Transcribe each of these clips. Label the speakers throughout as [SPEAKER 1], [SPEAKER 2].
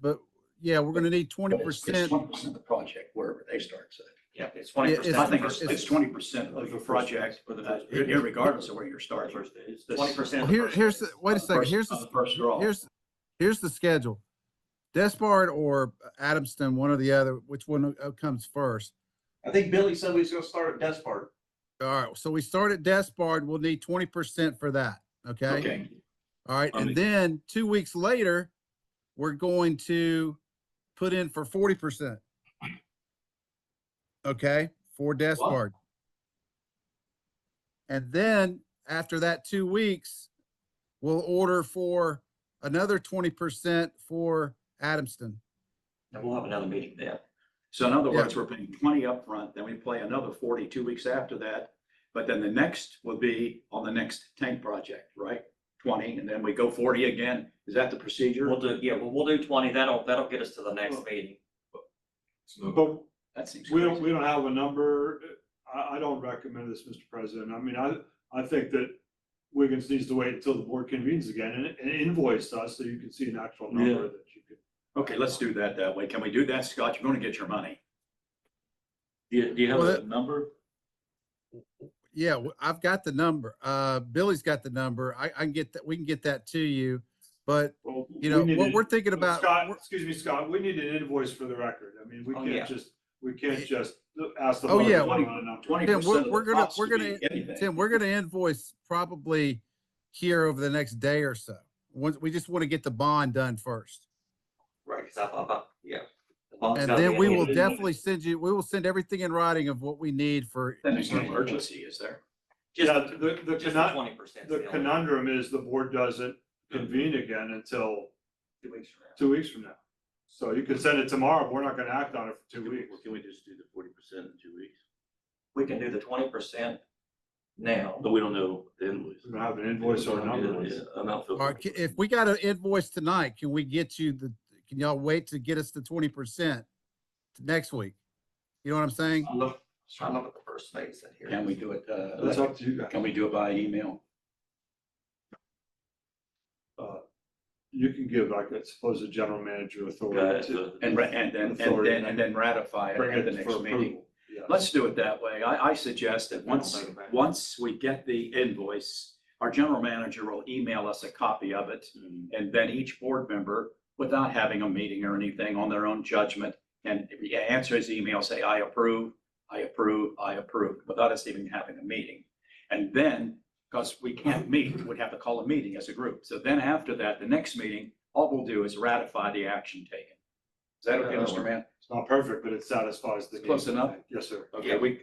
[SPEAKER 1] but yeah, we're gonna need twenty
[SPEAKER 2] But it's- It's
[SPEAKER 1] percent.
[SPEAKER 2] twenty percent of the project, wherever they start, so.
[SPEAKER 3] Yeah, it's twenty
[SPEAKER 1] Yeah,
[SPEAKER 3] percent.
[SPEAKER 1] it's-
[SPEAKER 2] It's twenty percent of the project,
[SPEAKER 3] For the
[SPEAKER 2] uh,
[SPEAKER 3] first.
[SPEAKER 2] irregardless of where you're starting.
[SPEAKER 3] First, it's
[SPEAKER 2] This-
[SPEAKER 3] twenty percent.
[SPEAKER 1] Here, here's the, wait a second,
[SPEAKER 2] First-
[SPEAKER 1] here's
[SPEAKER 2] of
[SPEAKER 1] the,
[SPEAKER 2] First draw.
[SPEAKER 1] here's, here's the schedule. Despard or Adamston, one or the other, which one uh, comes first?
[SPEAKER 3] I think Billy said we was gonna start at Despard.
[SPEAKER 1] All right, so we start at Despard, we'll need twenty percent for that, okay?
[SPEAKER 2] Okay,
[SPEAKER 1] All right,
[SPEAKER 4] Um,
[SPEAKER 1] and then two weeks later, we're going to put in for forty percent. Okay, for Despard. And then after that two weeks, we'll order for another twenty percent for Adamston.
[SPEAKER 3] And we'll have another meeting then.
[SPEAKER 2] so in other
[SPEAKER 1] Yeah.
[SPEAKER 2] words, we're paying twenty upfront, then we play another forty two weeks after that. But then the next will be on the next tank project, right? Twenty, and then we go forty again. Is that the procedure?
[SPEAKER 3] We'll do, yeah, well, we'll do twenty. That'll, that'll get us to the next meeting.
[SPEAKER 5] But
[SPEAKER 2] That seems
[SPEAKER 5] we don't,
[SPEAKER 2] crazy.
[SPEAKER 5] we don't have a number. I, I don't recommend this, Mr. President. I mean, I, I think that Wiggins needs to wait until the board convenes again and- and invoice us so you can see an actual number that you could.
[SPEAKER 2] Okay, let's do that that way. Can we do that, Scott? You're gonna get your money.
[SPEAKER 6] Do you, do you have
[SPEAKER 1] Well,
[SPEAKER 6] a
[SPEAKER 1] that-
[SPEAKER 6] number?
[SPEAKER 1] Yeah, w- I've got the number. Uh, Billy's got the number. I, I can get that, we can get that to you. But,
[SPEAKER 5] Well, we
[SPEAKER 1] you know,
[SPEAKER 5] need
[SPEAKER 1] what
[SPEAKER 5] an-
[SPEAKER 1] we're thinking about,
[SPEAKER 5] Scott,
[SPEAKER 1] we're-
[SPEAKER 5] excuse me, Scott, we need an invoice for the record. I mean, we
[SPEAKER 3] Oh, yeah.
[SPEAKER 5] can't just, we can't just ask the.
[SPEAKER 1] Oh,
[SPEAKER 5] board to
[SPEAKER 1] yeah.
[SPEAKER 5] vote on a number.
[SPEAKER 2] Twenty
[SPEAKER 1] Tim, we're-
[SPEAKER 2] percent of
[SPEAKER 1] we're
[SPEAKER 2] the
[SPEAKER 1] gonna-
[SPEAKER 2] cost
[SPEAKER 1] we're
[SPEAKER 2] could
[SPEAKER 1] gonna-
[SPEAKER 2] be anything.
[SPEAKER 1] Tim, we're gonna invoice probably here over the next day or so. Once, we just want to get the bond done first.
[SPEAKER 3] Right, cause I, I, I- yeah. The bond's
[SPEAKER 1] And
[SPEAKER 3] gotta be
[SPEAKER 1] then
[SPEAKER 3] at
[SPEAKER 1] we
[SPEAKER 3] the end
[SPEAKER 1] will
[SPEAKER 3] of the month.
[SPEAKER 1] definitely send you, we will send everything in writing of what we need for.
[SPEAKER 2] Then there's no emergency, is there?
[SPEAKER 3] Just,
[SPEAKER 5] Yeah, the, the
[SPEAKER 3] just
[SPEAKER 5] conun-
[SPEAKER 3] twenty percent.
[SPEAKER 5] the conundrum is the board doesn't convene again until two weeks from now. So you can send it tomorrow, but we're not gonna act on it for two weeks.
[SPEAKER 6] Can we just do the forty percent in two weeks?
[SPEAKER 3] We can do the twenty percent now.
[SPEAKER 6] But we don't know the invoice.
[SPEAKER 5] We're gonna have an invoice or a number.
[SPEAKER 6] Yeah, I'm not
[SPEAKER 1] All
[SPEAKER 6] feeling.
[SPEAKER 1] right, ca- if we got an invoice tonight, can we get you the, can y'all wait to get us the twenty percent next week? You know what I'm saying?
[SPEAKER 3] I look, I look at the first phase in here.
[SPEAKER 2] Can we do it,
[SPEAKER 5] That's
[SPEAKER 2] uh,
[SPEAKER 5] up to you guys.
[SPEAKER 2] can we do it by email?
[SPEAKER 5] You can give, like, I suppose, the general manager
[SPEAKER 6] Okay,
[SPEAKER 5] authority to
[SPEAKER 6] so-
[SPEAKER 2] And, ra- and then, and
[SPEAKER 5] Authority.
[SPEAKER 2] then, and then ratify it
[SPEAKER 5] bring
[SPEAKER 2] at the
[SPEAKER 5] it for
[SPEAKER 2] next meeting?
[SPEAKER 5] approval. Yeah.
[SPEAKER 2] Let's do it that way. I, I suggest that once,
[SPEAKER 3] I'll take it back.
[SPEAKER 2] once we get the invoice, our general manager will email us a copy of it.
[SPEAKER 3] Mm-hmm.
[SPEAKER 2] And then each board member, without having a meeting or anything, on their own judgment, and answer his email, say, I approve, I approve, I approve, without us even having a meeting. And then, because we can't meet, we'd have to call a meeting as a group. So then after that, the next meeting, all we'll do is ratify the action taken. Is that okay,
[SPEAKER 3] Yeah, that'll
[SPEAKER 2] Mr. Man?
[SPEAKER 5] It's not perfect, but it satisfies the.
[SPEAKER 2] It's close
[SPEAKER 5] need.
[SPEAKER 2] enough.
[SPEAKER 5] Yes, sir.
[SPEAKER 2] Okay, we,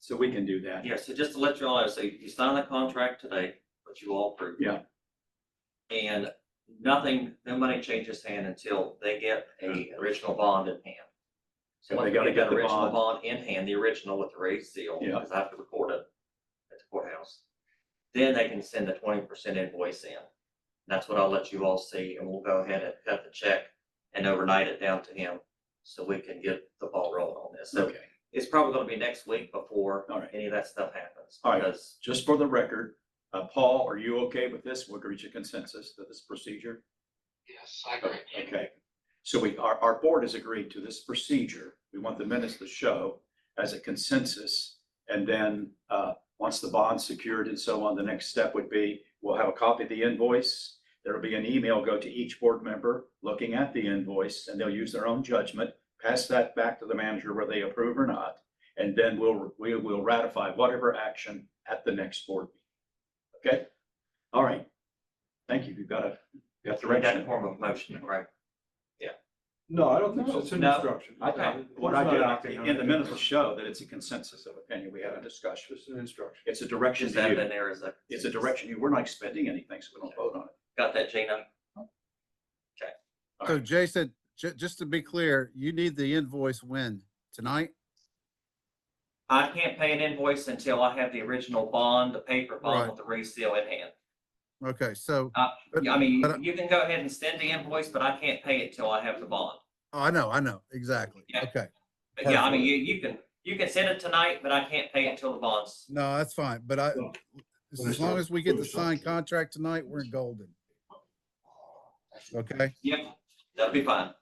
[SPEAKER 2] so we can do that.
[SPEAKER 3] Yeah, so just to let you all know, so you sign the contract today, which you all approved.
[SPEAKER 2] Yeah.
[SPEAKER 3] And nothing, no money changes hand until they get a original bond in hand. So
[SPEAKER 2] And
[SPEAKER 3] once
[SPEAKER 2] they
[SPEAKER 3] we
[SPEAKER 2] gotta
[SPEAKER 3] get
[SPEAKER 2] get
[SPEAKER 3] that
[SPEAKER 2] the
[SPEAKER 3] original
[SPEAKER 2] bond.
[SPEAKER 3] bond in hand, the original with the raised seal,
[SPEAKER 2] Yeah.
[SPEAKER 3] because I have to record it at the courthouse. Then they can send the twenty percent invoice in. That's what I'll let you all see, and we'll go ahead and cut the check and overnight it down to him, so we can get the ball rolling on this. So
[SPEAKER 2] Okay,
[SPEAKER 3] it's probably gonna be next week before
[SPEAKER 2] all right.
[SPEAKER 3] any of that stuff happens.
[SPEAKER 2] All right.
[SPEAKER 3] Because
[SPEAKER 2] Just for the record, uh, Paul, are you okay with this? We'll reach a consensus to this procedure?
[SPEAKER 7] Yes, I agree.
[SPEAKER 2] Okay. So we, our, our board has agreed to this procedure. We want the minutes to show as a consensus. And then, uh, once the bond's secured and so on, the next step would be, we'll have a copy of the invoice. There'll be an email go to each board member looking at the invoice and they'll use their own judgment, pass that back to the manager whether they approve or not. And then we'll, we will ratify whatever action at the next board. meeting. Okay? All right. Thank you. You've got a, you got
[SPEAKER 3] we got a
[SPEAKER 2] direction.
[SPEAKER 3] form of motion, right?
[SPEAKER 5] No, I don't think so. It's an
[SPEAKER 2] No.
[SPEAKER 5] instruction.
[SPEAKER 2] I
[SPEAKER 3] Okay.
[SPEAKER 2] thought, what
[SPEAKER 5] It's not
[SPEAKER 2] I
[SPEAKER 5] acting
[SPEAKER 2] did,
[SPEAKER 5] on
[SPEAKER 2] in the
[SPEAKER 5] it.
[SPEAKER 2] minutes will show that it's a consensus of opinion, we had a discussion.
[SPEAKER 5] Just an instruction.
[SPEAKER 2] It's a direction
[SPEAKER 3] Just
[SPEAKER 2] to
[SPEAKER 3] add it
[SPEAKER 2] you,
[SPEAKER 3] in there as a.
[SPEAKER 2] it's a direction, to you, we're not expending anything, so we don't vote on it.
[SPEAKER 3] Got that, Gina?
[SPEAKER 1] So Jason, ju- just to be clear, you need the invoice when? Tonight?
[SPEAKER 3] I can't pay an invoice until I have the original bond, the paper
[SPEAKER 1] Right.
[SPEAKER 3] bond with the reseal in hand.
[SPEAKER 1] Okay, so.
[SPEAKER 3] Uh,
[SPEAKER 1] but-
[SPEAKER 3] I mean,
[SPEAKER 1] but-
[SPEAKER 3] you can go ahead and send the invoice, but I can't pay it till I have the bond.
[SPEAKER 1] Oh, I know, I know, exactly.
[SPEAKER 3] Yeah.
[SPEAKER 1] Okay.
[SPEAKER 3] But yeah, I mean,
[SPEAKER 1] Perfect.
[SPEAKER 3] you, you can, you can send it tonight, but I can't pay it till the bonds.
[SPEAKER 1] No, that's fine, but I,
[SPEAKER 5] Well,
[SPEAKER 1] as-
[SPEAKER 5] let me
[SPEAKER 1] as long
[SPEAKER 5] start-
[SPEAKER 1] as we get
[SPEAKER 5] let
[SPEAKER 1] the
[SPEAKER 5] me start
[SPEAKER 1] signed
[SPEAKER 5] here.
[SPEAKER 1] contract tonight, we're golden. Okay?
[SPEAKER 3] Yep, that'll be fine.